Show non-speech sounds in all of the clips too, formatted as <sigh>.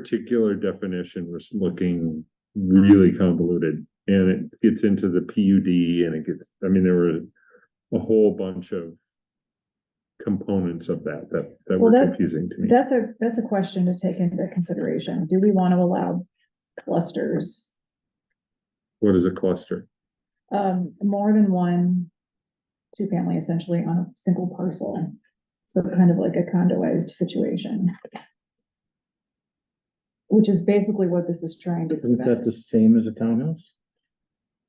particular definition was looking really convoluted. And it gets into the PUD and it gets, I mean, there were a whole bunch of components of that that that were Well, that- confusing to me. That's a, that's a question to take into consideration. Do we want to allow clusters? What is a cluster? Um, more than one two-family essentially on a single parcel. So kind of like a condoized situation. Which is basically what this is trying to Isn't that prevent. the same as a townhouse?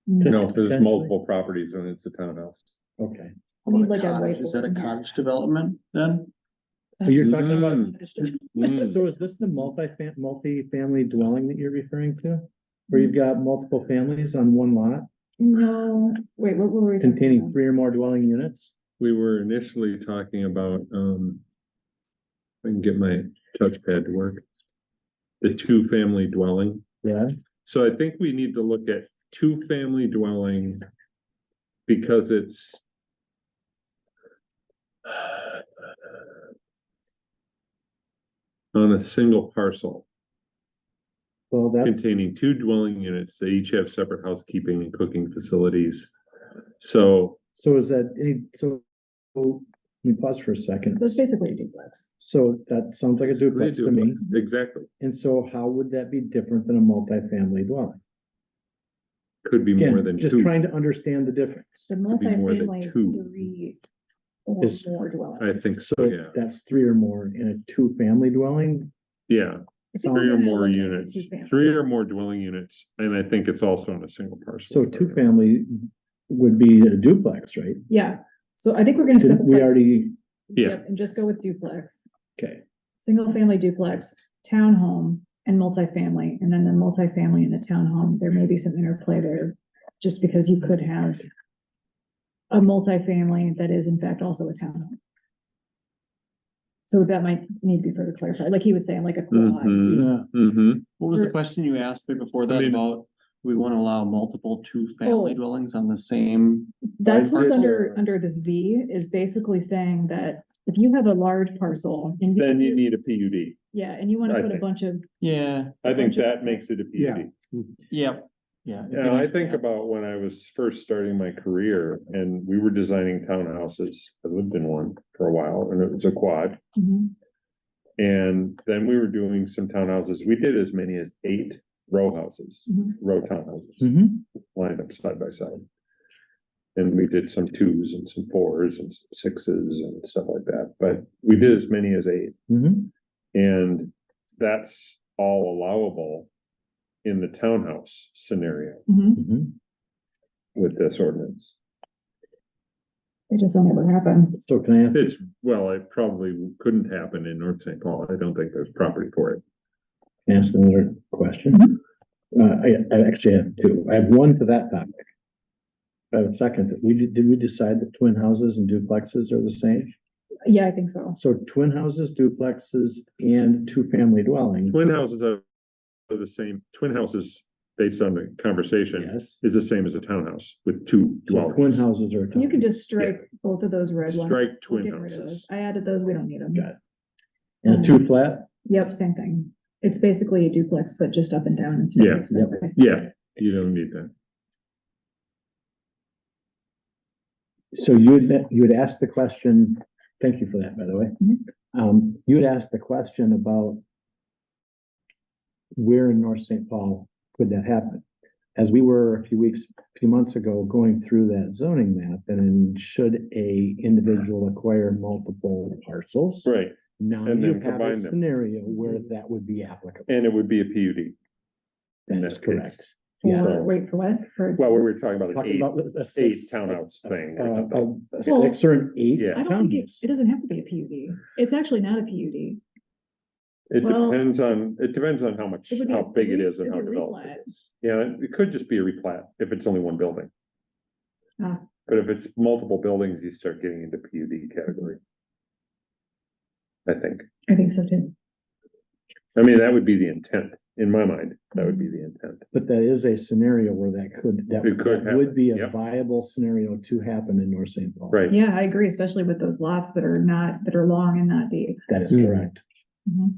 Mm, No, there's Potentially. multiple properties and it's a townhouse. Okay. we need like a cottage- Is that a whiteboard. cottage development then? So Oh, You're talking Mm. about, Mm. so is this the multi-fam- multi-family dwelling that you're referring to? Where you've got multiple families on one lot No, wait, what were we? talking containing about? three or more dwelling units? We were initially talking about, um. if I can get my touchpad to work. The two-family dwelling. Yeah. So I think we need to look at two-family dwelling. Because it's. <sighs> On a single parcel Well, that's, containing two dwelling units. They each have separate housekeeping and cooking facilities. So so is that, any- so, so, let me pause for a second. That's basically a duplex. So that sounds like a duplex to me. Exactly, And so how would that be different than a multi-family dwelling? could be more Again, than just two. trying to understand the difference. The be more than multi-family is two. three or Is- more dwellings. I think so, So yeah, that's three or more in a two-family dwelling. yeah, I three think we're or gonna more look at units, two-family. three or more dwelling units, and I think it's also on a single So parcel. two-family would be a duplex, right? Yeah, so I think we're gonna. Didn't we simplify- already, Yeah. Yep, And just go with duplex, okay, single-family duplex, townhome, and multifamily, and then the multifamily and the townhome, there may be some interplay there. Just because you could have a multifamily that is in fact also a townhome. So that might need to be further clarified, like he was saying, like a quad, Mm-hmm, Yeah. mm-hmm, What was the question you asked me before that mean- about, we want to allow multiple two-family Oh. dwellings on the same? that's what's Right. under, under this V, is basically saying that if you have a large parcel. and then you need a PUD, Yeah, and you wanna I put a think. bunch of Yeah, I think that makes it a PUD. yep, yeah. it'd be Now, I nice to think have- about when I was first starting my career, and we were designing townhouses, I lived in one for a while, and it was a quad. Mhm. And then we were doing some townhouses, we did as many as eight row houses, Mhm. row townhouses. Mhm. lined up side by side. And we did some twos and some fours and some sixes and stuff like that, but we did as many as eight, Mhm. and that's all allowable. In the townhouse scenario Mhm. Mhm. with this ordinance. It just will never happen. So can I ask, It's, well, it probably couldn't happen in North St. Paul, I don't think there's property for it. can I ask another question? Mm-hmm. Uh, I, I actually have two. I have one to that topic. I have a second. We, did did we decide that twin houses and duplexes are the same? Yeah, I think so. So twin houses, duplexes, and two-family dwelling? Twin houses are are the same, twin houses, based on the conversation, Yes. is the same as a townhouse with two So twin dwellings. houses are. You a can townhouse. just strike both of those red ones. Strike We'll twin get rid of houses. those. I added those, we don't need them. Got it. And a two-flat? Yep, same thing. It's basically a duplex, but just up and down instead Yeah, of side by side. Yeah, you don't need that. So you'd, you had asked the question, thank you for that, by the way. Mhm. Um, you had asked the question about where in North St. Paul could that happen? As we were a few weeks, a few months ago, going through that zoning map, and then should a individual acquire multiple parcels? Right, Now And you then have a combine them. scenario where Mm-hmm. that would be applicable. And it would be a PUD. in That's that case. correct. Yeah. For, wait, for what? For. Well, we were talking about an Talking eight, about a eight six- townhouse thing. uh, or something. A a six or an eight Yeah. I don't think it, townhouse. it doesn't have to be a PUD. It's actually not a PUD. It well- depends on, it depends on how much, It would be how a big it re- is and it's how a developed replat. it is. Yeah, it- it could just be a replat if it's only one building. Ah. But if it's multiple buildings, you start getting into PUD category. I think. I think so too. I mean, that would be the intent, in my mind, that would be the intent. But that is a scenario where that could, that It could that would be a happen, viable scenario to happen in North St. Paul. Right, Yeah, I agree, especially with those lots that are not, that are long and not deep. That is Mm. correct. Mhm.